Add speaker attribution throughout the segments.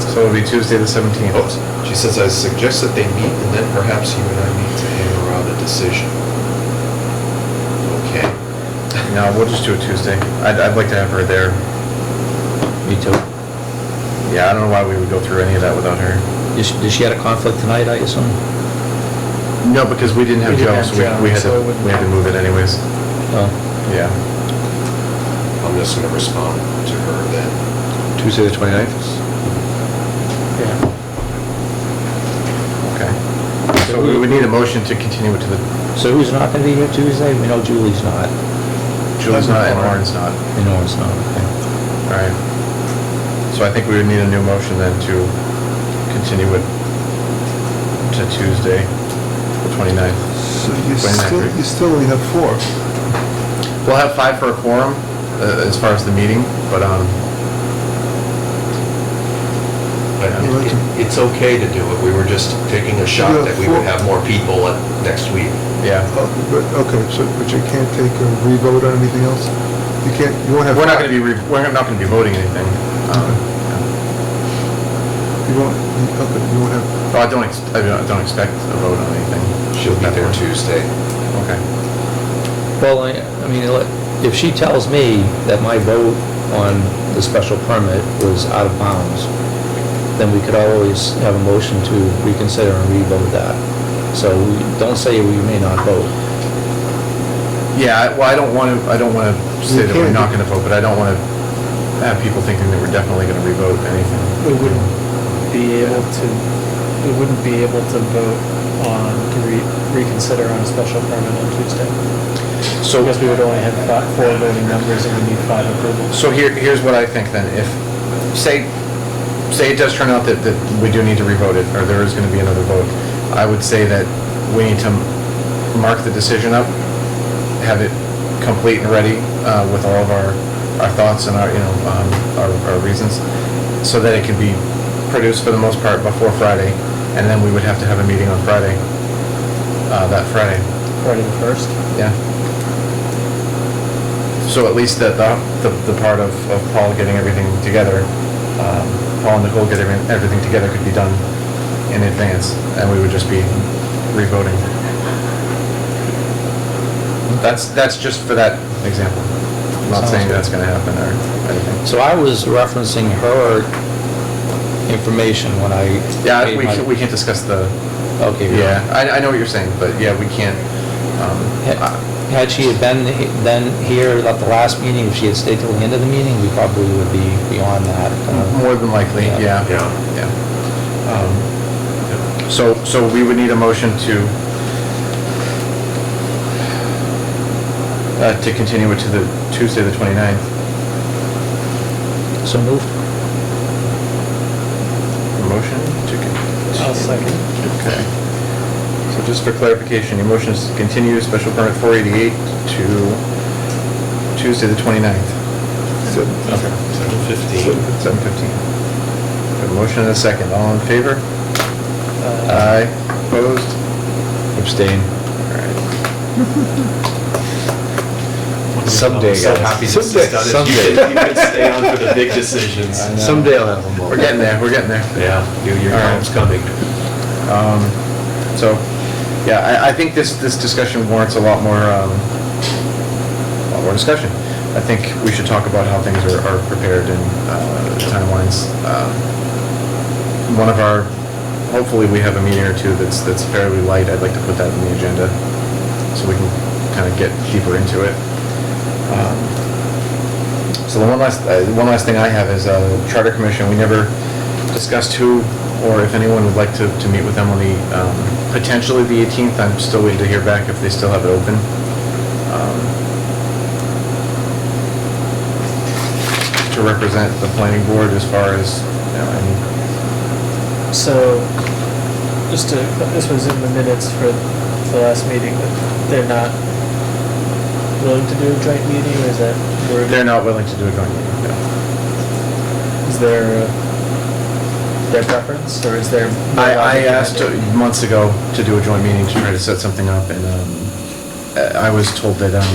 Speaker 1: So it'll be Tuesday, the 17th.
Speaker 2: Oh, She says, I suggest that they meet and then perhaps you and I need to hammer out a decision. Okay.
Speaker 1: No, we'll just do it Tuesday. I'd, I'd like to have her there.
Speaker 3: Me too.
Speaker 1: Yeah, I don't know why we would go through any of that without her.
Speaker 3: Does she- Does she had a conflict tonight, I assume?
Speaker 1: No, because we didn't have
Speaker 4: We
Speaker 1: Joe,
Speaker 4: didn't have
Speaker 1: so we-
Speaker 4: Joe,
Speaker 1: we had
Speaker 4: so
Speaker 1: to,
Speaker 4: it wouldn't
Speaker 1: we had to
Speaker 4: matter.
Speaker 1: move it anyways.
Speaker 3: Oh,
Speaker 1: Yeah.
Speaker 2: I'm just gonna respond to her then.
Speaker 1: Tuesday, the 29th?
Speaker 4: Yeah.
Speaker 1: Okay. So we would need a motion to continue it to the,
Speaker 3: so who's not gonna be here Tuesday? We know Julie's not.
Speaker 1: Julie's not and
Speaker 4: Lauren.
Speaker 1: Lauren's not.
Speaker 3: We know it's not, okay.
Speaker 1: All right. So I think we would need a new motion then to continue it to Tuesday, the 29th.
Speaker 5: So
Speaker 1: Wait a
Speaker 5: you
Speaker 1: minute,
Speaker 5: still,
Speaker 1: Rick.
Speaker 5: you still only have four.
Speaker 1: We'll have five for a quorum, uh, as far as the meeting, but, um,
Speaker 2: But
Speaker 1: Yeah.
Speaker 2: it- it- it's okay to do it. We were just taking a shot that we would have more people at next week.
Speaker 1: yeah.
Speaker 5: Oh, but- Okay, so, but you can't take a revote on anything else? You can't, you won't have.
Speaker 1: We're not gonna be, re- we're not gonna be voting anything. Um,
Speaker 5: You won't, you- okay, you won't have,
Speaker 1: Oh, I don't, ex- I don't- I don't expect a vote on anything.
Speaker 2: She'll be there Tuesday.
Speaker 1: Okay.
Speaker 3: Well, I, I mean, let- if she tells me that my vote on the special permit was out of bounds, then we could always have a motion to reconsider and revote that. So we- don't say we may not vote.
Speaker 1: Yeah, I- well, I don't wanna, I don't wanna say
Speaker 5: You
Speaker 1: that we're
Speaker 5: can't.
Speaker 1: not gonna vote, but I don't wanna have people thinking that we're definitely gonna re-vote anything.
Speaker 4: We wouldn't be able to, we wouldn't be able to vote on, to re- reconsider on a special permit on Tuesday.
Speaker 1: So,
Speaker 4: Because we would only have fi- four voting members and we need five approvals.
Speaker 1: so here, here's what I think then, if, say, say it does turn out that, that we do need to re-vote it, or there is gonna be another vote, I would say that we need to mark the decision up, have it complete and ready, uh, with all of our, our thoughts and our, you know, um, our, our reasons, so that it can be produced for the most part before Friday, and then we would have to have a meeting on Friday, uh, that Friday.
Speaker 4: Friday the first?
Speaker 1: Yeah. So at least that, the, the the part of, of Paul getting everything together, um, Paul and Nicole getting everything together could be done in advance, and we would just be revoting. That's, that's just for that example. I'm not saying that's gonna happen or anything.
Speaker 3: So I was referencing her information when I.
Speaker 1: Yeah,
Speaker 3: made
Speaker 1: we,
Speaker 3: my-
Speaker 1: can't- we can't discuss the,
Speaker 3: Okay. we-
Speaker 1: yeah, I, I know what you're saying, but yeah, we can't, um,
Speaker 3: Had had she had been, he- then here at the last meeting, if she had stayed till the end of the meeting, we probably would be beyond that. uh,
Speaker 1: More than likely, yeah.
Speaker 3: Yeah.
Speaker 2: Yeah.
Speaker 1: Yeah. Um, So, so we would need a motion to, uh, to continue it to the Tuesday, the 29th.
Speaker 3: So moved.
Speaker 1: Motion to continue.
Speaker 4: I'll second.
Speaker 1: Okay. So just for clarification, your motion is to continue special permit 488 to Tuesday, the 29th,
Speaker 5: seven-
Speaker 2: Seven fifteen.
Speaker 5: seven-
Speaker 1: 7:15. Have a motion and a second. All in favor?
Speaker 4: Uh,
Speaker 1: Aye. Opposed?
Speaker 3: Abstain.
Speaker 1: All right.
Speaker 3: Someday,
Speaker 2: I'm so
Speaker 3: guys.
Speaker 2: happy this is
Speaker 3: Someday,
Speaker 2: done. If
Speaker 3: someday.
Speaker 2: You could- you could stay on for the big decisions.
Speaker 1: I know.
Speaker 3: Someday I'll have them all.
Speaker 1: We're getting there, we're getting there.
Speaker 2: Yeah, New Year's
Speaker 1: All right.
Speaker 2: home's coming.
Speaker 1: Um, So, yeah, I, I think this, this discussion warrants a lot more, um, a lot more discussion. I think we should talk about how things are, are prepared and uh, timelines. Um, One of our, hopefully we have a meeting or two that's, that's fairly light. I'd like to put that in the agenda so we can kind of get deeper into it. Um, so the one last, uh, one last thing I have is uh, Charter Commission, we never discussed who or if anyone would like to, to meet with them on the, um, potentially the 18th. I'm still waiting to hear back if they still have it open. um, To represent the planning board as far as, you know, any-
Speaker 4: So, just to, this was in the minutes for the last meeting, but they're not willing to do a joint meeting, or is that? worded?
Speaker 1: they're not willing to do it on meeting, no.
Speaker 4: Is there their preference, or is there? more
Speaker 1: I, I
Speaker 4: logic in
Speaker 1: asked uh,
Speaker 4: it?
Speaker 1: months ago to do a joint meeting to try to set something up, and um, I I was told that, um,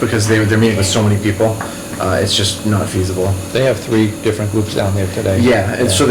Speaker 1: because they, they're meeting with so many people, uh, it's just not feasible.
Speaker 3: They have three different groups down there today.
Speaker 1: Yeah, and so